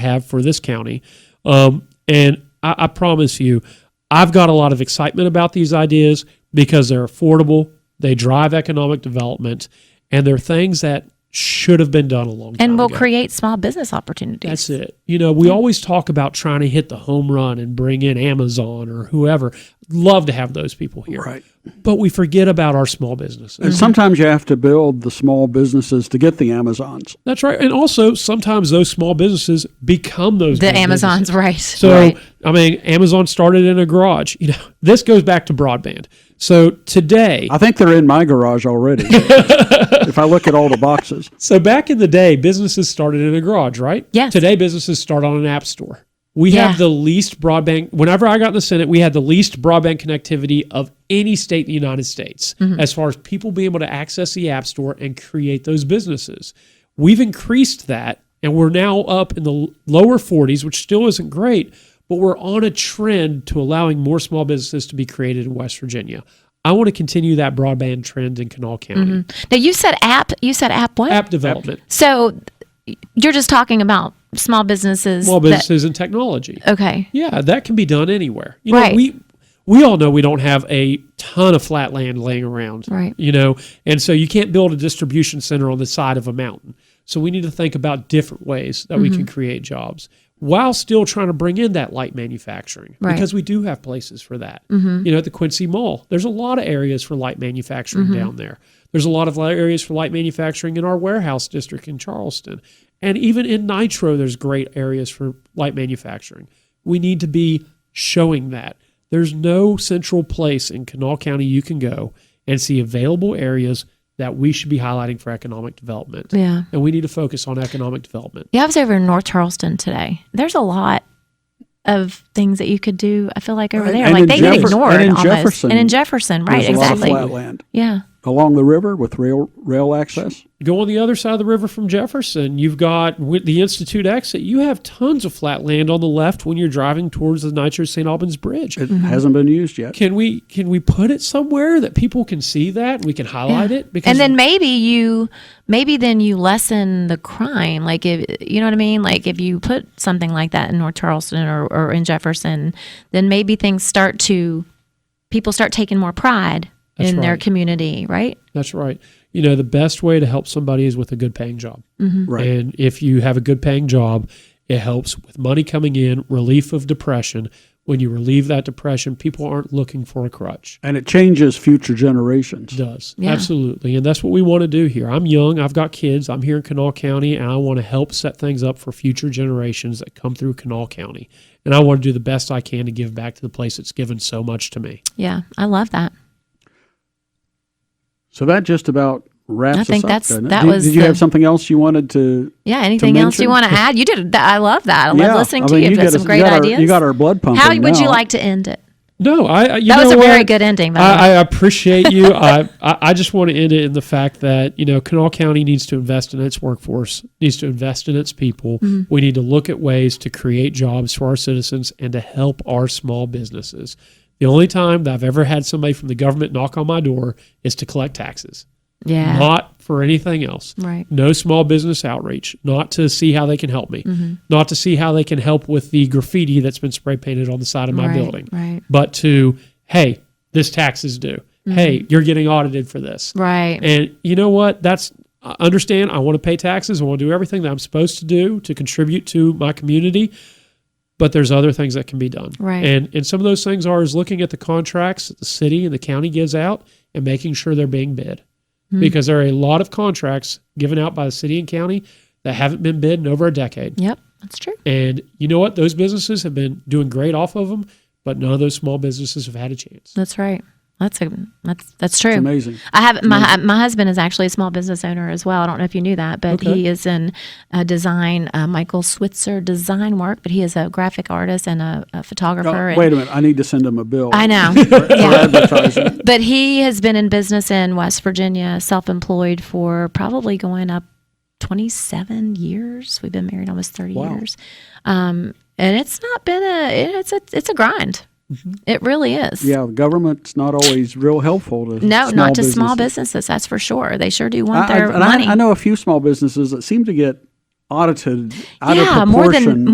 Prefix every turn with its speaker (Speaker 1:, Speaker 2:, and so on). Speaker 1: have for this county. Um, and I, I promise you, I've got a lot of excitement about these ideas because they're affordable, they drive economic development, and they're things that should have been done a long time
Speaker 2: and will
Speaker 1: ago.
Speaker 2: create small business opportunities.
Speaker 1: That's it. You know, we always talk about trying to hit the home run and bring in Amazon or whoever. Love to have those people here.
Speaker 3: Right.
Speaker 1: But we forget about our small businesses.
Speaker 2: Mm-hmm.
Speaker 3: And sometimes you have to build the small businesses to get the Amazons.
Speaker 1: That's right. And also, sometimes those small businesses become those
Speaker 2: The
Speaker 1: big businesses.
Speaker 2: Amazon's right.
Speaker 1: So
Speaker 2: right.
Speaker 1: I mean, Amazon started in a garage. You know, this goes back to broadband. So today,
Speaker 3: I think they're in my garage already. if I look at all the boxes,
Speaker 1: so back in the day, businesses started in a garage, right?
Speaker 2: Yes.
Speaker 1: Today, businesses start on an app store. We
Speaker 2: Yeah.
Speaker 1: have the least broadband. Whenever I got in the Senate, we had the least broadband connectivity of any state in the United States,
Speaker 2: Mm-hmm.
Speaker 1: as far as people being able to access the app store and create those businesses. We've increased that, and we're now up in the l- lower 40s, which still isn't great, but we're on a trend to allowing more small businesses to be created in West Virginia. I want to continue that broadband trend in Kanawha County.
Speaker 2: now you said app. You said app what?
Speaker 1: App development.
Speaker 2: So you're just talking about small businesses.
Speaker 1: small
Speaker 2: that-
Speaker 1: businesses and technology.
Speaker 2: okay.
Speaker 1: Yeah, that can be done anywhere. You know,
Speaker 2: Right.
Speaker 1: we we all know we don't have a ton of flat land laying around.
Speaker 2: Right.
Speaker 1: You know, and so you can't build a distribution center on the side of a mountain. So we need to think about different ways that we can
Speaker 2: Mm-hmm.
Speaker 1: create jobs while still trying to bring in that light manufacturing
Speaker 2: Right.
Speaker 1: because we do have places for that. You know, at the Quincy Mall, there's a lot of areas for light manufacturing down there. There's a lot of li- areas for light manufacturing in our warehouse district in Charleston. And even in Nitro, there's great areas for light manufacturing. We need to be showing that. There's no central place in Kanawha County you can go and see available areas that we should be highlighting for economic development.
Speaker 2: Yeah.
Speaker 1: And we need to focus on economic development.
Speaker 2: Yeah, I was over in North Charleston today. There's a lot of things that you could do. I feel like over
Speaker 3: Right.
Speaker 2: there,
Speaker 3: And
Speaker 2: like
Speaker 3: in
Speaker 2: they
Speaker 3: Jefferson-
Speaker 2: get ignored
Speaker 3: and in
Speaker 2: almost.
Speaker 3: Jefferson,
Speaker 2: and in Jefferson, right?
Speaker 3: there's
Speaker 2: Exactly.
Speaker 3: a lot of flat land
Speaker 2: Yeah.
Speaker 3: along the river with rail rail access.
Speaker 1: Go on the other side of the river from Jefferson. You've got with the Institute exit. You have tons of flat land on the left when you're driving towards the Nitro St. Albans Bridge.
Speaker 3: It
Speaker 2: Mm-hmm.
Speaker 3: hasn't been used yet.
Speaker 1: Can we can we put it somewhere that people can see that we can highlight it?
Speaker 2: and then maybe you maybe then you lessen the crime like if you know what i mean like if you put something like that in north charleston or, or in jefferson then maybe things start to people start taking more pride
Speaker 1: That's
Speaker 2: in their
Speaker 1: right.
Speaker 2: community right
Speaker 1: that's right. You know the best way to help somebody is with a good paying job.
Speaker 2: Mm-hmm.
Speaker 3: Right.
Speaker 1: And if you have a good paying job, it helps with money coming in, relief of depression. When you relieve that depression, people aren't looking for a crutch.
Speaker 3: And it changes future generations.
Speaker 1: does
Speaker 2: Yeah.
Speaker 1: absolutely and that's what we want to do here i'm young i've got kids i'm here in kanawha county and i want to help set things up for future generations that come through kanawha county and i want to do the best i can to give back to the place that's given so much to me
Speaker 2: yeah i love that
Speaker 3: So that just about wraps
Speaker 2: I think
Speaker 3: us up.
Speaker 2: that's-
Speaker 3: doesn't it?
Speaker 2: that
Speaker 3: did,
Speaker 2: was
Speaker 3: did you
Speaker 2: the-
Speaker 3: have something else you wanted to?
Speaker 2: yeah anything else you
Speaker 3: mention-
Speaker 2: want to add you did that i love that i love
Speaker 3: Yeah,
Speaker 2: listening
Speaker 3: I
Speaker 2: to
Speaker 3: mean,
Speaker 2: you you've
Speaker 3: got
Speaker 2: got
Speaker 3: us-
Speaker 2: some great
Speaker 3: you got our-
Speaker 2: ideas
Speaker 3: you got our blood pumping.
Speaker 2: how would you
Speaker 3: now.
Speaker 2: like to end it
Speaker 1: no i I- you
Speaker 2: that was
Speaker 1: know
Speaker 2: a very
Speaker 1: what?
Speaker 2: good ending by the way
Speaker 1: I, I appreciate you. I, I I just want to end it in the fact that you know Kanawha County needs to invest in its workforce, needs to invest in its people.
Speaker 2: Mm-hmm.
Speaker 1: We need to look at ways to create jobs for our citizens and to help our small businesses. The only time that I've ever had somebody from the government knock on my door is to collect taxes,
Speaker 2: yeah
Speaker 1: not for anything else.
Speaker 2: right
Speaker 1: No small business outreach, not to see how they can help me,
Speaker 2: Mm-hmm.
Speaker 1: not to see how they can help with the graffiti that's been spray painted on the side of my
Speaker 2: right
Speaker 1: building
Speaker 2: right
Speaker 1: but to hey this tax is due hey you're getting audited for this
Speaker 2: right
Speaker 1: and you know what that's I understand i want to pay taxes i want to do everything that i'm supposed to do to contribute to my community but there's other things that can be done
Speaker 2: Right.
Speaker 1: and and some of those things are is looking at the contracts that the city and the county gives out and making sure they're being bid because there are a lot of contracts given out by the city and county that haven't been bid in over a decade
Speaker 2: yep that's true
Speaker 1: and you know what? Those businesses have been doing great off of them, but none of those small businesses have had a chance.
Speaker 2: That's right. That's a that's that's true.
Speaker 3: It's amazing.
Speaker 2: I have my my husband is actually a small business owner as well. I don't know if you knew that, but
Speaker 1: Okay.
Speaker 2: he is in uh, design, uh, Michael Switzer design work. But he is a graphic artist and a, a photographer.
Speaker 3: Oh,
Speaker 2: and-
Speaker 3: wait a minute. I need to send them a bill.
Speaker 2: I know.
Speaker 3: For advertising.
Speaker 2: but he has been in business in West Virginia, self-employed for probably going up 27 years. We've been married almost 30
Speaker 3: Wow.
Speaker 2: years. Um, and it's not been a it- it's a it's a grind.
Speaker 3: Mm-hmm.
Speaker 2: It really is.
Speaker 3: Yeah, the government's not always real helpful to
Speaker 2: No,
Speaker 3: small
Speaker 2: not to small
Speaker 3: businesses.
Speaker 2: businesses. That's for sure. They sure do
Speaker 3: I,
Speaker 2: want
Speaker 3: I-
Speaker 2: their
Speaker 3: and I-
Speaker 2: money.
Speaker 3: I, know a few small businesses that seem to get audited out
Speaker 2: Yeah,
Speaker 3: of
Speaker 2: more than-
Speaker 3: proportion